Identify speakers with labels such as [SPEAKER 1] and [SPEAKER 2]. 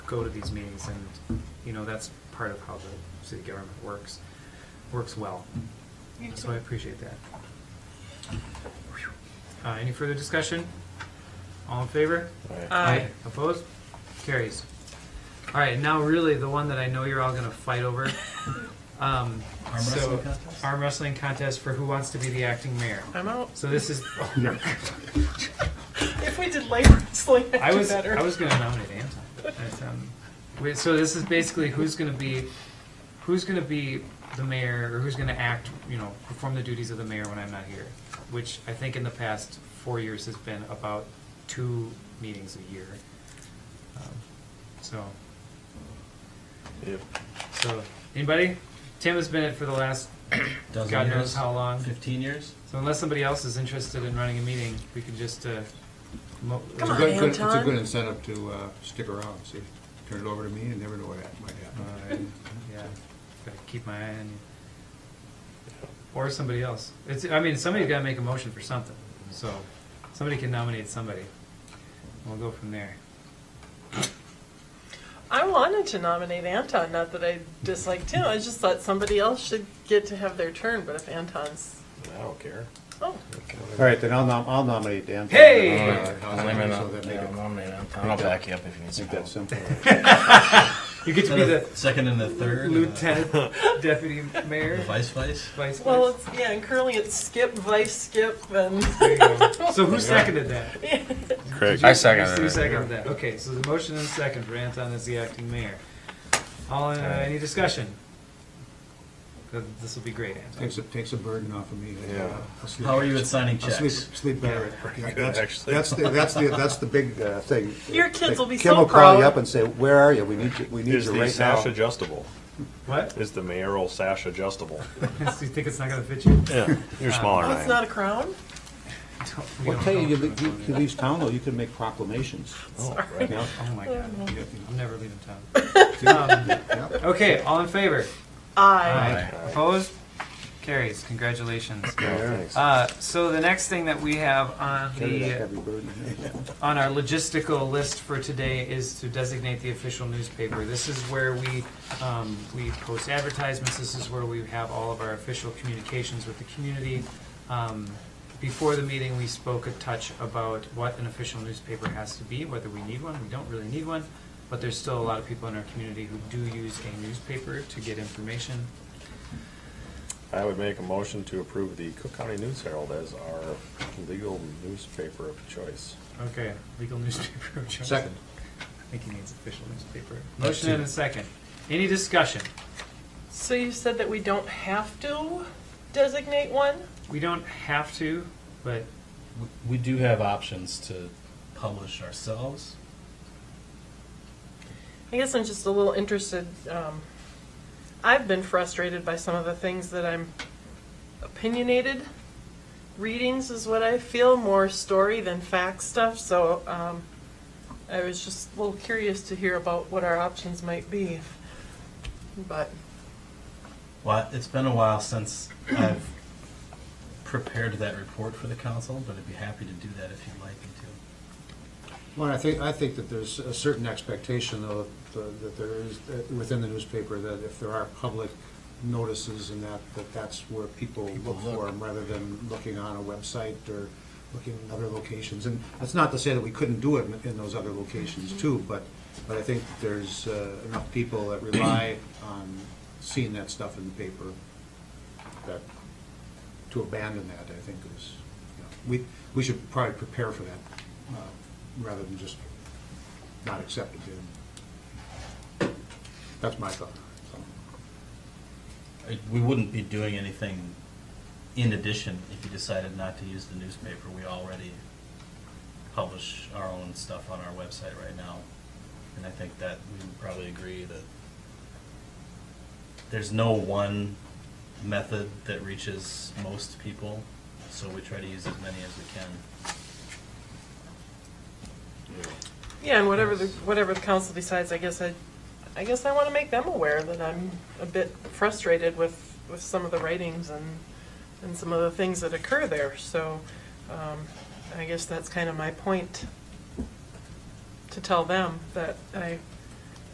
[SPEAKER 1] go to these meetings, and, you know, that's part of how the city government works, works well.
[SPEAKER 2] You
[SPEAKER 1] So I
[SPEAKER 2] too.
[SPEAKER 1] appreciate that. Uh, any further discussion? All in favor?
[SPEAKER 2] Aye.
[SPEAKER 1] Opposed? Carries. All right, now really the one that I know you're all gonna fight over. Um,
[SPEAKER 3] Arm
[SPEAKER 1] so-
[SPEAKER 3] wrestling contest?
[SPEAKER 1] Arm wrestling contest for who wants to be the acting mayor.
[SPEAKER 2] I'm out.
[SPEAKER 1] So this is,
[SPEAKER 2] If we did light wrestling, I'd
[SPEAKER 1] I
[SPEAKER 2] do
[SPEAKER 1] was,
[SPEAKER 2] better.
[SPEAKER 1] I was gonna nominate Anton. But, um, wait, So this is basically who's gonna be, who's gonna be the mayor, or who's gonna act, you know, perform the duties of the mayor when I'm not here? Which I think in the past four years has been about two meetings a year. Um, So, so, anybody? Tim has been it for the last,
[SPEAKER 3] Dozen
[SPEAKER 1] God knows
[SPEAKER 3] years?
[SPEAKER 1] how long.
[SPEAKER 3] Fifteen years?
[SPEAKER 1] So unless somebody else is interested in running a meeting, we can just, uh, mo-
[SPEAKER 2] Come
[SPEAKER 4] It's a
[SPEAKER 2] on,
[SPEAKER 4] good- good- It's
[SPEAKER 2] Anton.
[SPEAKER 4] a good incentive to uh, stick around, see, turn it over to me and never know what that might
[SPEAKER 1] All
[SPEAKER 4] happen.
[SPEAKER 1] right. Yeah, gotta keep my eye on you. Or somebody else. It's, I mean, somebody's gotta make a motion for something, so somebody can nominate somebody. We'll go from there.
[SPEAKER 2] I wanted to nominate Anton, not that I disliked him. I just thought somebody else should get to have their turn, but if Anton's.
[SPEAKER 5] I don't care.
[SPEAKER 2] Oh,
[SPEAKER 6] All right, then I'll nom, I'll nominate Dan.
[SPEAKER 1] Hey!
[SPEAKER 4] All
[SPEAKER 5] Yeah,
[SPEAKER 4] right, how's
[SPEAKER 5] I'll
[SPEAKER 4] that?
[SPEAKER 5] name it
[SPEAKER 4] So
[SPEAKER 5] up.
[SPEAKER 4] that make
[SPEAKER 5] Yeah,
[SPEAKER 4] it-
[SPEAKER 5] I'll name it up. I'll back you up if you need
[SPEAKER 6] I
[SPEAKER 5] some
[SPEAKER 6] think that's
[SPEAKER 5] help.
[SPEAKER 6] simple.
[SPEAKER 1] You get to be the
[SPEAKER 3] Second and the third? and the-
[SPEAKER 1] lieutenant deputy
[SPEAKER 3] The
[SPEAKER 1] mayor,
[SPEAKER 3] vice vice?
[SPEAKER 1] vice.
[SPEAKER 2] well,
[SPEAKER 1] mayor.
[SPEAKER 2] it's, yeah, and currently it's skip, vice, skip, and.
[SPEAKER 1] There you go. So who seconded that?
[SPEAKER 5] Craig. I
[SPEAKER 1] Who
[SPEAKER 5] second it.
[SPEAKER 1] seconded that? Okay, so the motion and second for Anton as the acting mayor. All, in- uh, any discussion? This will be great, Anton.
[SPEAKER 4] Takes, a- takes a burden off of me.
[SPEAKER 5] Yeah.
[SPEAKER 4] I'll sleep-
[SPEAKER 3] How are you at signing
[SPEAKER 4] I'll sleep,
[SPEAKER 3] checks?
[SPEAKER 4] sleep better at night. That's,
[SPEAKER 5] Actually.
[SPEAKER 4] that's the, that's the, that's the big uh, thing.
[SPEAKER 2] Your kids will be
[SPEAKER 6] Kim
[SPEAKER 2] so
[SPEAKER 6] will call you
[SPEAKER 2] proud.
[SPEAKER 6] up and say, where are you? We need you, we need
[SPEAKER 7] Is
[SPEAKER 6] you
[SPEAKER 7] the
[SPEAKER 6] right
[SPEAKER 7] sash
[SPEAKER 6] now.
[SPEAKER 7] adjustable?
[SPEAKER 1] What?
[SPEAKER 7] Is the mayoral sash adjustable?
[SPEAKER 1] So you think it's not gonna fit you?
[SPEAKER 7] Yeah, you're smaller
[SPEAKER 2] Oh, it's
[SPEAKER 7] than I
[SPEAKER 2] not a crown?
[SPEAKER 1] We
[SPEAKER 6] Well,
[SPEAKER 1] don't
[SPEAKER 6] tell you,
[SPEAKER 1] know.
[SPEAKER 6] you, le- you- you leave town though, you can make proclamations.
[SPEAKER 7] am.
[SPEAKER 6] you know?
[SPEAKER 1] Oh my god,
[SPEAKER 4] Yeah,
[SPEAKER 1] I'm never leaving town. Um,
[SPEAKER 4] yeah.
[SPEAKER 1] Okay, all in favor?
[SPEAKER 2] I.
[SPEAKER 1] Opposed? Carries, congratulations.
[SPEAKER 7] Thanks.
[SPEAKER 1] Uh, so the next thing that we have on
[SPEAKER 6] Carry that
[SPEAKER 1] the,
[SPEAKER 6] heavy burden.
[SPEAKER 1] on our logistical list for today is to designate the official newspaper. This is where we, um, we post advertisements, this is where we have all of our official communications with the community. Um, Before the meeting, we spoke a touch about what an official newspaper has to be, whether we need one, we don't really need one, but there's still a lot of people in our community who do use a newspaper to get information.
[SPEAKER 7] I would make a motion to approve the Cook County News Herald as our legal newspaper of choice.
[SPEAKER 1] Okay, legal newspaper of choice.
[SPEAKER 4] Second.
[SPEAKER 1] I think he means official newspaper. Motion and a second. Any discussion?
[SPEAKER 2] So you said that we don't have to designate one?
[SPEAKER 1] We don't have to, but
[SPEAKER 3] We do have options to publish ourselves.
[SPEAKER 2] I guess I'm just a little interested. Um, I've been frustrated by some of the things that I'm opinionated. Readings is what I feel more story than fact stuff. So um, I was just a little curious to hear about what our options might be. But
[SPEAKER 3] Well, it's been a while since I've prepared that report for the council, but I'd be happy to do that if you'd like me to.
[SPEAKER 4] Well, I think, I think that there's a certain expectation though, that that there is, that within the newspaper, that if there are public notices and that, that that's where people look for them, rather than looking on a website or looking in other locations. And that's not to say that we couldn't do it in- in those other locations too, but, but I think there's uh, enough people that rely on seeing that stuff in the paper, that, to abandon that, I think is, you know, we, we should probably prepare for that, uh, rather than just not accept it. and- That's my thought. so.
[SPEAKER 3] I- We wouldn't be doing anything in addition if you decided not to use the newspaper. We already publish our own stuff on our website right now. And I think that we would probably agree that there's no one method that reaches most people, so we try to use as many as we can.
[SPEAKER 2] yeah, and whatever the whatever the council decides, I guess I, I guess I want to make them aware that I'm a bit frustrated with with some of the writings and and some of the things that occur there. So um, I guess that's kind of my point to tell them that I